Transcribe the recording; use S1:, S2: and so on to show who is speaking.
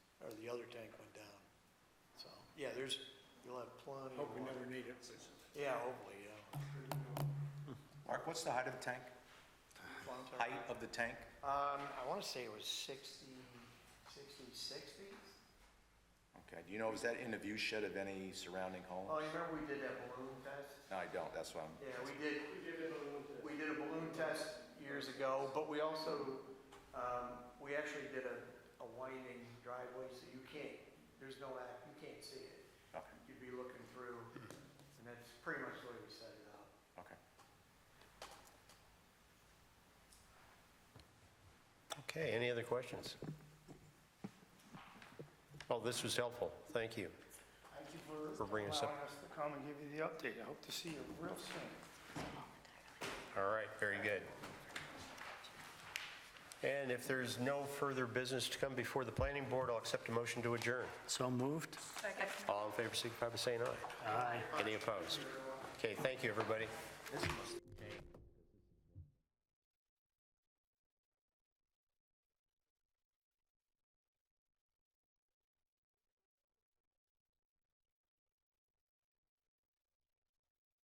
S1: yeah, there's, you'll have plenty of
S2: Hope we
S1: water.
S2: never need it.
S1: Yeah, hopefully, yeah.
S3: Mark, what's the height of the tank?
S1: Long term.
S3: Height of the tank?
S1: Um, I wanna say it was sixty, sixty-six feet?
S3: Okay, do you know, is that in the view shed of any surrounding home?
S1: Oh, you remember we did that balloon test?
S3: No, I don't, that's why I'm,
S1: Yeah, we did. We did a balloon test. years ago, but we also, um, we actually did a, a winding driveway, so you can't, there's no, ac- you can't see it.
S3: okay,
S1: You'd be looking through, and that's pretty much the way we set it up.
S3: okay.
S4: Okay, any other questions? Oh, this was helpful. Thank you.
S5: Thank you for
S4: For bringing us up.
S5: allowing us to come and give you the update. I hope to see you real soon.
S4: All right, very good. And if there's no further business to come before the planning board, I'll accept a motion to adjourn.
S6: So moved.
S4: All in favor, signify by saying aye.
S6: Aye.
S4: Any opposed? Okay, thank you, everybody.
S3: This must